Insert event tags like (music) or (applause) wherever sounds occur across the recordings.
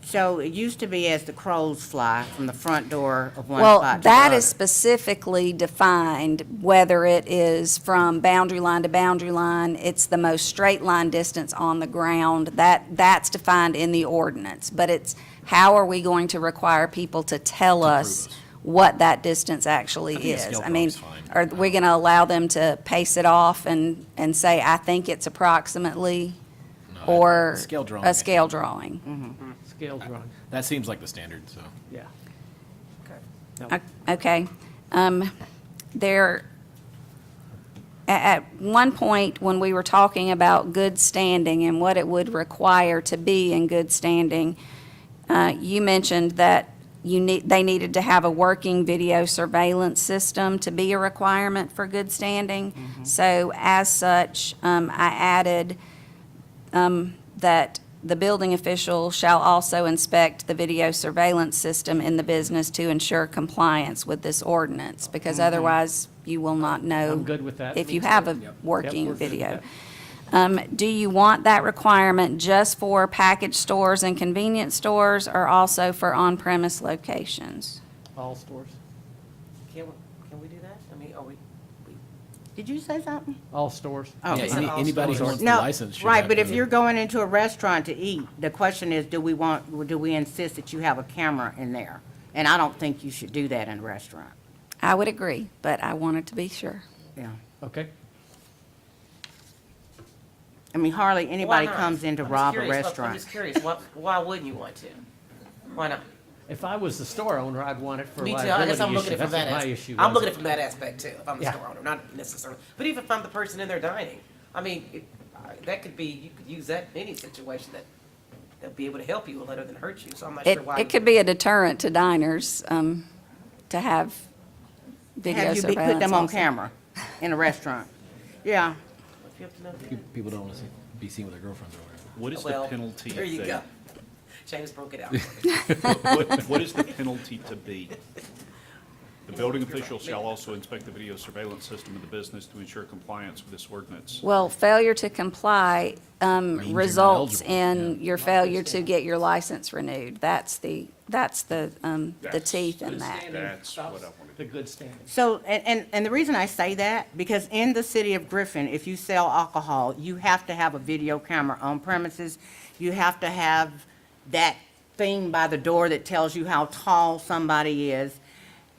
So it used to be as the crows fly from the front door of one Well, spot to the that is other. specifically defined, whether it is from boundary line to boundary line, it's the most straight line distance on the ground, that, that's defined in the ordinance. But it's, how are we going to require people to tell us what that distance actually I think a is? scale I mean, drawing's fine. are we gonna allow them to pace it off and, and say, I think it's approximately? Or Scale drawing, I a think. scale drawing? Scale drawing, That seems like the standard, so. yeah. O- Okay. Um, There, a- at one point, when we were talking about good standing and what it would require to be in good standing, uh, you mentioned that you need, they needed to have a working video surveillance system to be a requirement for good standing. Mm-hmm. So as such, um, I added um, that the building official shall also inspect the video surveillance system in the business to ensure compliance with this ordinance, because otherwise you will not know. Mm-hmm. I'm good with that. If Me you too. have Yep. a Yep, working we're good with video. that. Um, do you want that requirement just for package stores and convenience stores, or also for on-premise locations? All stores, Can, we- can we do that? I mean, are we, we- Did you say something? all stores. Oh, Yeah, sorry. any- all anybody who stores. wants the No, license should Right, have but if the- you're going into a restaurant to eat, the question is, do we want, do we insist that you have a camera in there? And I don't think you should do that in a restaurant, I would agree, but I wanted to be sure. yeah. Okay, I mean, hardly why anybody not? comes in to I'm just rob a curious. Look, I'm restaurant. just curious, why, why wouldn't you want to? Why not? if I was the store owner, I'd want it for Me too, I guess liability I'm looking issue, at it that's from that what my aspect. issue was. I'm looking at it from that aspect too, if I'm the Yeah. store owner, not necessarily, but even if I'm the person in there dining, I mean, it, I- that could be, you could use that in any situation that, they'll be able to help you rather than hurt you, so I'm not It, sure why. it could be a deterrent to diners, um, to have video Have you surveillance be- put them on also. camera in a restaurant? Yeah, If you have to know (laughs) that. Pe- People don't want to be seen with their girlfriends or whatever. What is the Well, penalty? There you that- go. (laughs) James broke (laughs) it out. What what is the penalty to be? The building official shall also inspect the video surveillance system of the business to ensure compliance with this ordinance. Well, failure to comply um, Means you're not results eligible, in your failure to get your license renewed. That's the, that's the, um, the That's- teeth in Good that. standing That's stops what I wanted. The good standing. so, and, and, and the reason I say that, because in the city of Griffin, if you sell alcohol, you have to have a video camera on premises. You have to have that thing by the door that tells you how tall somebody is.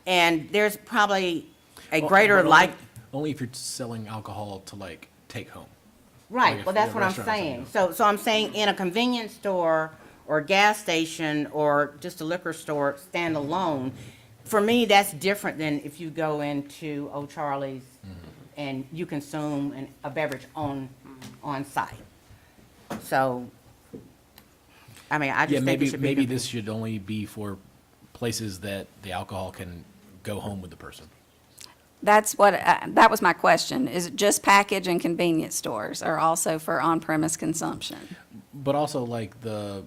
And there's probably a Well, greater but only- like, Only if you're selling alcohol to like take home. like right, if well, you're that's a what I'm restaurant or something, saying. yeah. So, so I'm saying in a convenience store or gas station or just a liquor store standalone, for me, that's different than if you go into Old Charlie's Mm-hmm. and you consume an, a beverage on, on site. So, I mean, I Yeah, just think it maybe, should be. maybe con- this should only be for places that the alcohol can go home with the person. That's what, I- that was my question, is it just package and convenience stores are also for on-premise consumption? But also like the,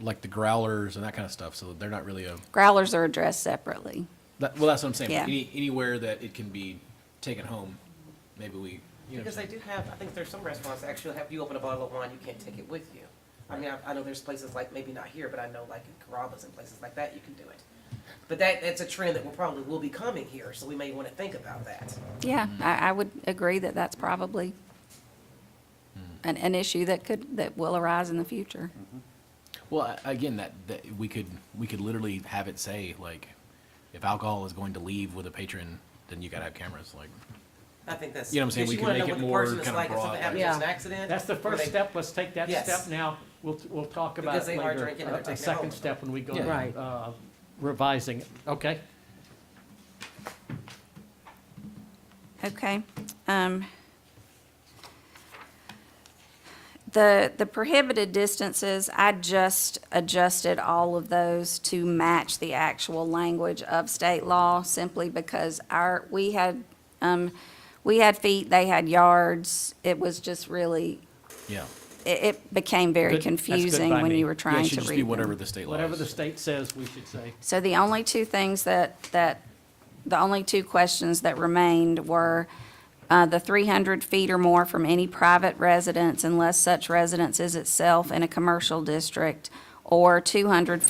like the growlers and that kind of stuff, so they're not really a, Growlers are addressed separately. that, well, that's what I'm saying. Yeah. Any, anywhere that it can be taken home, maybe we, you know. what I'm Because they saying? do have, I think there's some restaurants that actually have you open a bottle of wine, you can't take it with you. I mean, I, I know there's places like, maybe not here, but I know like in Carrabba's and places like that, you can do it. But that, that's a trend that will probably will be coming here, so we may want to think about that. Yeah, I, I would agree that that's probably an, an issue that could, that will arise in the future. Well, a- again, that, that we could, we could literally have it say like, if alcohol is going to leave with a patron, then you gotta have cameras, like. I think that's. You know what I'm saying? because We you can make wanna know it what the more person is kinda like if broad, something happens, like- it's an accident. That's the or first they- step, let's take that Yes. step now, we'll, we'll talk about Because it they are later. drinking and they're A- A taking it home. second step when we go, Yeah. Right. uh, revising it, okay? Okay. um, The, the prohibited distances, I just adjusted all of those to match the actual language of state law simply because our, we had, um, we had feet, they had yards. It was just really, Yeah. it, it became very Good- that's good confusing by when me. you were Yeah, Yeah, trying it to should just be read them. whatever the state law Whatever the is. state says, we should say. So the only two things that, that, the only two questions that remained were uh, the 300 feet or more from any private residence unless such residence is itself in a commercial district, or 200